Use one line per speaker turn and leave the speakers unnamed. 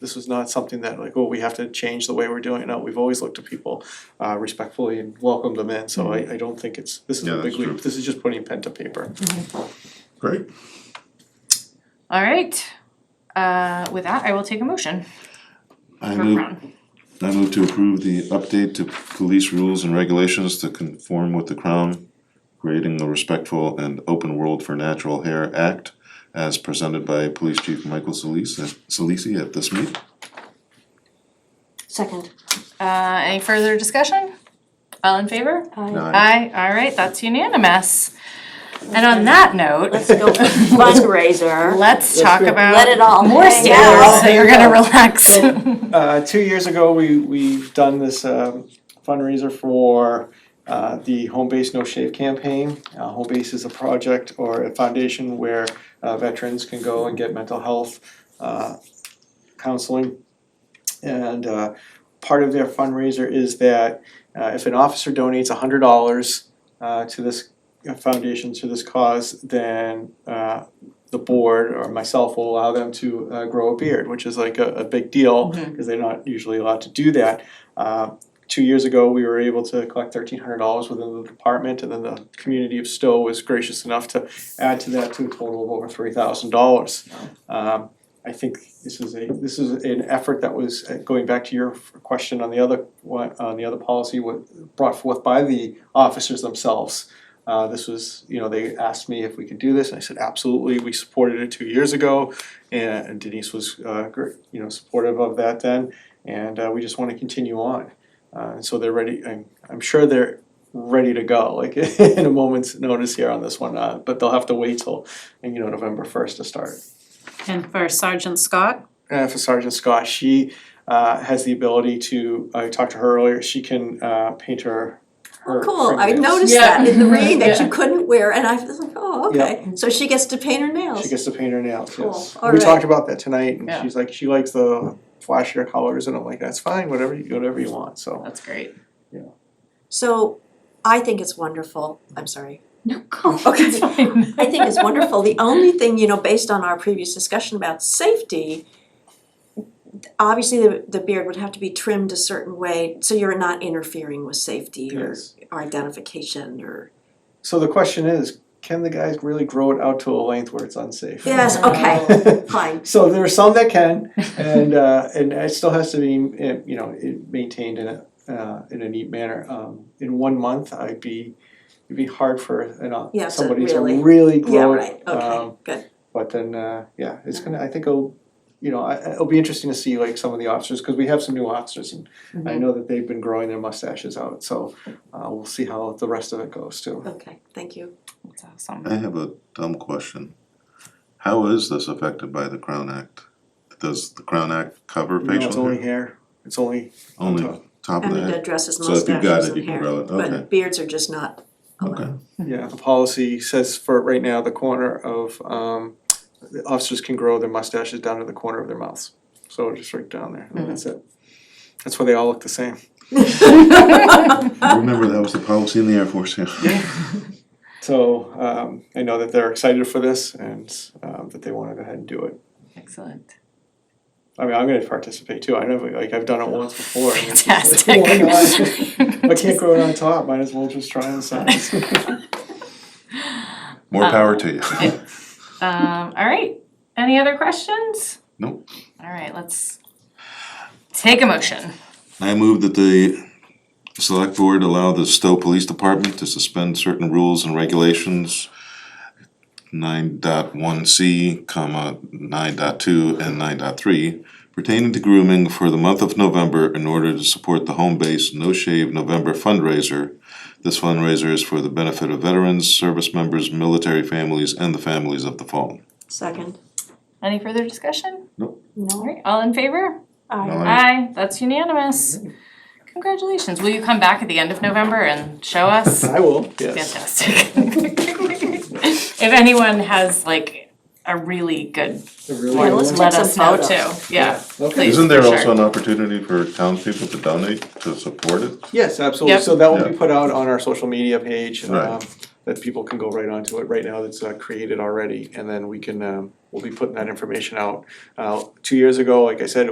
This was not something that like, oh, we have to change the way we're doing it. No, we've always looked at people uh respectfully and welcomed them in, so I I don't think it's, this is
Mm-hmm. Yeah,
a big
that's true.
leap. This is just putting pen to paper.
Great.
All right. Uh, with that, I will take a motion
I
for
move,
Crown.
I move to approve the update to police rules and regulations to conform with the Crown, creating the Respectful and Open World for Natural Hair Act as presented by Police Chief Michael Solis, Solisi at this meeting.
Second.
Uh, any further discussion? All in favor?
Aye.
Aye, all right, that's unanimous. And on that note,
Let's go for fundraiser.
let's talk about
Let it all
more
hang
stairs,
out.
so you're gonna relax.
Uh two years ago, we we've done this um fundraiser for uh the Home Base No Shave campaign. Uh Home Base is a project or a foundation where uh veterans can go and get mental health uh counseling. And uh part of their fundraiser is that uh if an officer donates hundred dollars uh to this foundation, to this cause, then uh the board or myself will allow them to uh grow a beard, which is like a a big deal, because they're not usually allowed to do that. Uh two years ago, we were able to collect thirteen hundred dollars within the department, and then the community of Stowe was gracious enough to add to that to a total of over three thousand dollars. Um I think this is a, this is an effort that was, uh, going back to your f- question on the other one, on the other policy, what brought forth by the officers themselves. Uh this was, you know, they asked me if we could do this, and I said, absolutely, we supported it two years ago. And Denise was uh gr- you know, supportive of that then, and uh we just wanna continue on. Uh and so they're ready, I'm I'm sure they're ready to go, like in a moment's notice here on this one, uh but they'll have to wait till, you know, November first to start.
And for Sergeant Scott,
uh, for Sergeant Scott, she uh, has the ability to. I talked to her earlier. She can uh, paint her. her
Oh, Cool, I
fingernails.
noticed
Yeah.
that in the rain that
Yeah.
you couldn't wear and I was like, oh, okay. So she gets to paint her
She
nails.
gets to paint her nails. Yes.
Cool, all
we
right.
talked about that tonight, and
Yeah.
she's like, she likes the flashier colors, and I'm like, that's fine. Whatever you whatever you want. So
That's great.
So I think it's wonderful. I'm sorry.
No, go,
Okay.
it's fine.
I think it's wonderful. The only thing, you know, based on our previous discussion about safety, obviously the, the beard would have to be trimmed a certain way so you're not interfering with safety or
Yes.
identification or.
so the question is, can the guys really grow it out to a length where it's unsafe?
Yes, okay, fine.
So there are some that can, and uh, and it still has to be, eh, you know, it maintained in a uh, in a neat manner. Um, in one month, I'd be, it'd be hard for you know
Yeah, so
somebody
really-
to really
Yeah,
grow
right,
it.
okay,
Um,
good.
but then, uh, yeah, it's gonna. I think it'll, you know, I, it'll be interesting to see like some of the officers because we have some new officers, and I
Mm-hmm.
know that they've been growing their mustaches out. So uh, we'll see how the rest of it goes too.
Okay, thank you.
That's awesome.
I have a dumb question. How is this affected by the Crown Act? Does the Crown Act cover
No, it's
facial
only
hair?
hair. It's only
Only
top.
top
I
of the
mean,
head?
that dresses
So if you've got
mustaches
it, you
and
can
hair,
grow it. Okay.
but beards are just not allowed.
Okay,
Yeah, the policy says for right now, the corner of um the officers can grow their mustaches down to the corner of their mouths. So just right down there, and that's it. That's why they all look the same.
remember that was the policy in the Air Force, yeah.
So um I know that they're excited for this and um that they wanna go ahead and do it.
Excellent.
I mean, I'm gonna participate too. I never, like, I've done it once before. and it's just like,
Fantastic.
Why not? If I can't grow it on top, might as well just try on size.
More power to you.
Um, all right, any other questions?
Nope.
All right, let's take a motion.
I move that the select board allow the Stowe Police Department to suspend certain rules and regulations. Nine dot one C, comma, nine dot two and nine dot three pertaining to grooming for the month of November in order to support the home base No Shave November fundraiser. This fundraiser is for the benefit of veterans, service members, military families, and the families of the fallen.
Second.
Any further discussion? All
No.
right, all in favor?
Aye.
Aye, that's unanimous. Congratulations. Will you come back at the end of November and show us?
I will, yes.
Fantastic. If anyone has like a really good
I really
Yeah,
one,
will.
let's take
let
some
us know too.
photos.
Yeah,
Okay.
please,
Isn't there
for
also
sure.
an opportunity for townspeople to donate to support it?
Yes, absolutely,
Yep.
so that will be
Yeah.
put out on our social media page, and,
Right.
um, that people can go right onto it, right now it's uh, created already, and then we can, um, we'll be putting that information out. Uh, two years ago, like I said,